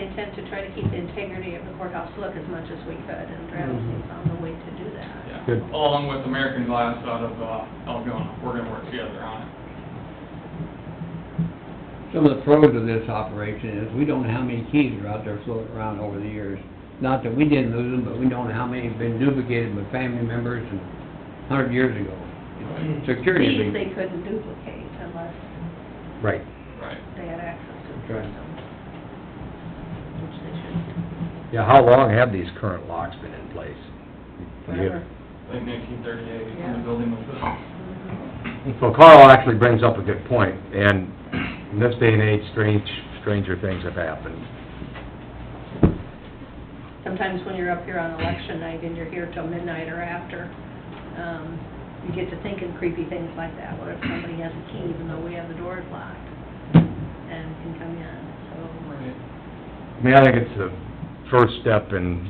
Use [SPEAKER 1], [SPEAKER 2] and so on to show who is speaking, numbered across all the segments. [SPEAKER 1] intent to try to keep the integrity of the courthouse look as much as we could, and Bradley found a way to do that.
[SPEAKER 2] Mm-hmm. Yeah.
[SPEAKER 3] Good.
[SPEAKER 2] Along with American Glass out of uh, Algona, we're gonna work together on it.
[SPEAKER 3] Some of the pros of this operation is we don't know how many keys are out there floating around over the years. Not that we didn't lose them, but we don't know how many have been duplicated with family members and hundred years ago. Security.
[SPEAKER 1] These
[SPEAKER 3] is
[SPEAKER 1] they
[SPEAKER 3] a-
[SPEAKER 1] couldn't duplicate unless
[SPEAKER 3] Right.
[SPEAKER 2] Right.
[SPEAKER 1] they had access to the
[SPEAKER 3] Right.
[SPEAKER 1] system. Which they shouldn't.
[SPEAKER 4] Yeah, how long have these current locks been in place?
[SPEAKER 1] Forever.
[SPEAKER 2] Like nineteen thirty-eight, when
[SPEAKER 1] Yeah.
[SPEAKER 2] the building was built.
[SPEAKER 1] Mhm.
[SPEAKER 4] So Carl actually brings up a good point, and in this day and age, strange, stranger things have happened.
[SPEAKER 1] Sometimes when you're up here on election night and you're here till midnight or after, um, you get to thinking creepy things like that. What if somebody has a key even though we have the doors locked and can come in? So,
[SPEAKER 2] Right.
[SPEAKER 4] I mean, I think it's the first step in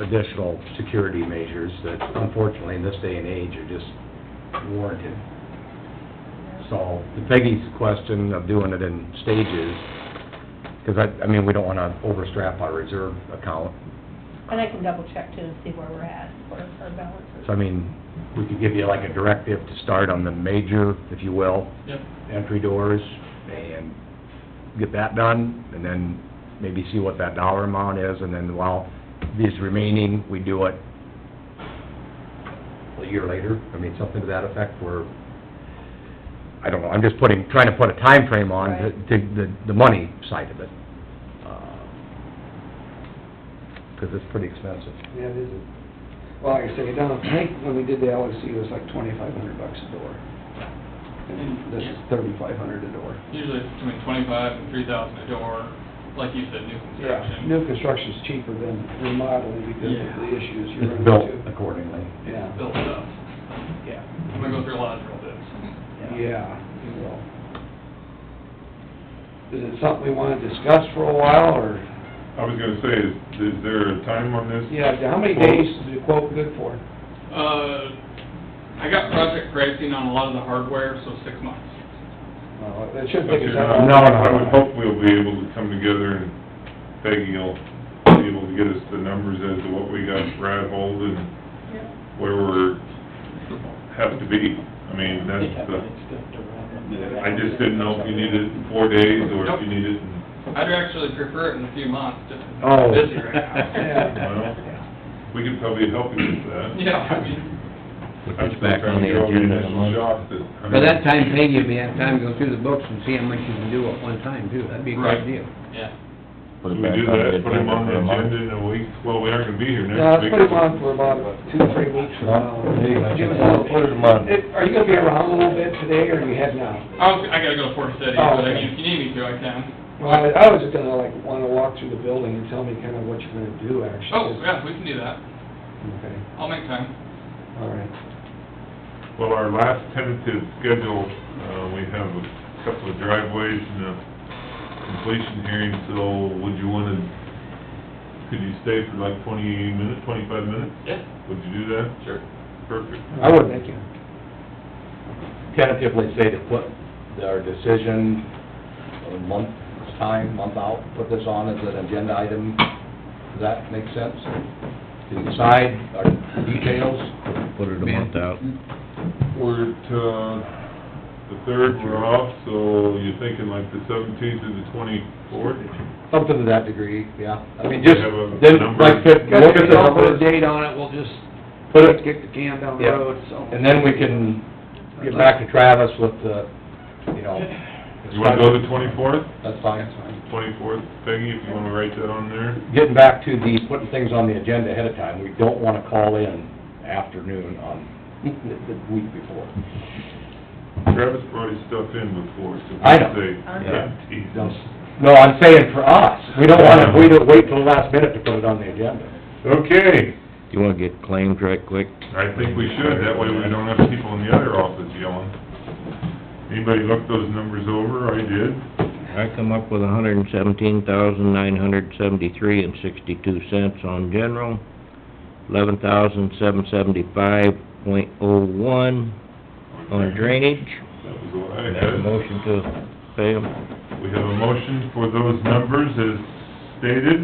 [SPEAKER 4] additional security measures that unfortunately in this day and age are just warranted. So to Peggy's question of doing it in stages, because I, I mean, we don't want to overstrap our reserve account.
[SPEAKER 1] and I can double check too and see where we're at, where our balance is.
[SPEAKER 4] So I mean, we could give you like a directive to start on the major, if you will,
[SPEAKER 2] Yep,
[SPEAKER 4] entry doors and get that done, and then maybe see what that dollar amount is, and then while these remaining, we do it a year later, I mean, something to that effect, where, I don't know, I'm just putting, trying to put a time frame on to,
[SPEAKER 1] Right.
[SPEAKER 4] to the, the money side of it. Because it's pretty expensive.
[SPEAKER 5] Yeah, it is. a- Well, like I say, down, I think when we did the LSC, it was like twenty-five hundred bucks a door. And this is thirty-five hundred a door.
[SPEAKER 2] usually it's between twenty-five and three thousand a door, like you said, new construction.
[SPEAKER 5] New construction's cheaper than remodeling because of the issues you're
[SPEAKER 4] It's built
[SPEAKER 5] running into.
[SPEAKER 4] accordingly.
[SPEAKER 5] Yeah,
[SPEAKER 2] Built up.
[SPEAKER 5] yeah,
[SPEAKER 2] I'm gonna go through a lot of drill bits.
[SPEAKER 5] yeah, you will. Is it something we wanna discuss for a while, or,
[SPEAKER 6] I was gonna say, is, is there a time on this?
[SPEAKER 5] yeah, how many days is the quote good for?
[SPEAKER 2] Uh, I got project pricing on a lot of the hardware, so six months.
[SPEAKER 5] Well, it shouldn't
[SPEAKER 6] But
[SPEAKER 5] take
[SPEAKER 6] you're
[SPEAKER 5] us
[SPEAKER 6] not-
[SPEAKER 5] that long.
[SPEAKER 4] No, no,
[SPEAKER 6] I would
[SPEAKER 4] no.
[SPEAKER 6] hope we'll be able to come together and Peggy will be able to get us the numbers as to what we got rattled and
[SPEAKER 1] Yep.
[SPEAKER 6] where we're, have to be. I mean, that's the, I just didn't know if you needed it in four days or if you needed it in,
[SPEAKER 2] I'd actually prefer it in a few months, just
[SPEAKER 4] Oh.
[SPEAKER 2] busy right now.
[SPEAKER 5] Yeah.
[SPEAKER 6] well, we could probably help you with that.
[SPEAKER 2] Yeah, I mean,
[SPEAKER 4] Put
[SPEAKER 6] I'm
[SPEAKER 4] this
[SPEAKER 6] still
[SPEAKER 4] back on
[SPEAKER 6] trying to
[SPEAKER 4] the
[SPEAKER 6] get over
[SPEAKER 4] agenda in a
[SPEAKER 6] initial
[SPEAKER 4] month.
[SPEAKER 6] shock that- I
[SPEAKER 3] By that
[SPEAKER 6] mean-
[SPEAKER 3] time, Peggy will be have time to go through the books and see how much you can do at one time too. That'd be a
[SPEAKER 2] Right.
[SPEAKER 3] great deal.
[SPEAKER 2] yeah.
[SPEAKER 6] Do we do that, put him on the agenda in a week, well, we aren't gonna be here
[SPEAKER 5] Yeah, let's
[SPEAKER 6] next week.
[SPEAKER 5] put him on for about two, three weeks from now.
[SPEAKER 4] No,
[SPEAKER 5] Give us a-
[SPEAKER 4] put him on.
[SPEAKER 5] It- Are you gonna be around a little bit today, or you head now?
[SPEAKER 2] I was, I gotta go to Fort City,
[SPEAKER 5] Oh,
[SPEAKER 2] but I
[SPEAKER 5] okay.
[SPEAKER 2] mean, if you need me to, I can.
[SPEAKER 5] Well, I I was just gonna like, wanna walk through the building and tell me kinda what you're gonna do, actually.
[SPEAKER 2] Oh, yeah, we can do that.
[SPEAKER 5] Okay,
[SPEAKER 2] I'll make time.
[SPEAKER 5] all right.
[SPEAKER 6] Well, our last tentative schedule, uh, we have a couple of driveways and a completion hearing, so would you wanna, could you stay for like twenty minutes, twenty-five minutes?
[SPEAKER 2] Yeah,
[SPEAKER 6] Would you do that?
[SPEAKER 2] sure.
[SPEAKER 6] Perfect.
[SPEAKER 4] I would.
[SPEAKER 5] Thank you.
[SPEAKER 4] tentatively say to put our decision a month's time, month out, put this on as an agenda item. Does that make sense? To decide our details?
[SPEAKER 3] Put it a month out.
[SPEAKER 6] We're at, uh, the third, we're off, so you're thinking like the seventeenth or the twenty-fourth?
[SPEAKER 4] Something to that degree, yeah. I mean, just,
[SPEAKER 6] Have a
[SPEAKER 4] then,
[SPEAKER 6] number.
[SPEAKER 4] like, fit-
[SPEAKER 5] Got
[SPEAKER 4] look
[SPEAKER 5] to
[SPEAKER 4] at
[SPEAKER 5] get
[SPEAKER 4] the
[SPEAKER 5] off a
[SPEAKER 4] numbers,
[SPEAKER 5] date on it, we'll just
[SPEAKER 4] put it,
[SPEAKER 5] kick the can down the
[SPEAKER 4] Yeah.
[SPEAKER 5] road, so.
[SPEAKER 4] and then we can get back to Travis with the, you know...
[SPEAKER 6] You wanna go the twenty-fourth?
[SPEAKER 4] That's fine.
[SPEAKER 6] Twenty-fourth, Peggy, if you wanna write that on there?
[SPEAKER 4] Getting back to the, putting things on the agenda ahead of time, we don't wanna call in afternoon on the the week before.
[SPEAKER 6] Travis brought his stuff in before, so
[SPEAKER 4] I know.
[SPEAKER 6] we say,
[SPEAKER 4] Yeah.
[SPEAKER 6] "Ah, geez."
[SPEAKER 4] No, I'm saying for us, we don't wanna, we don't wait till the last minute to put it on the agenda.
[SPEAKER 6] Okay,
[SPEAKER 7] You wanna get claims right quick?
[SPEAKER 6] I think we should, that way we don't have people in the other office yelling. Anybody look those numbers over? I did.
[SPEAKER 7] I come up with a hundred and seventeen thousand, nine hundred seventy-three and sixty-two cents on general, eleven thousand, seven seventy-five point oh one on drainage.
[SPEAKER 6] That was what I
[SPEAKER 7] Have
[SPEAKER 6] had.
[SPEAKER 7] a motion to pay 'em.
[SPEAKER 6] We have a motion for those numbers as stated.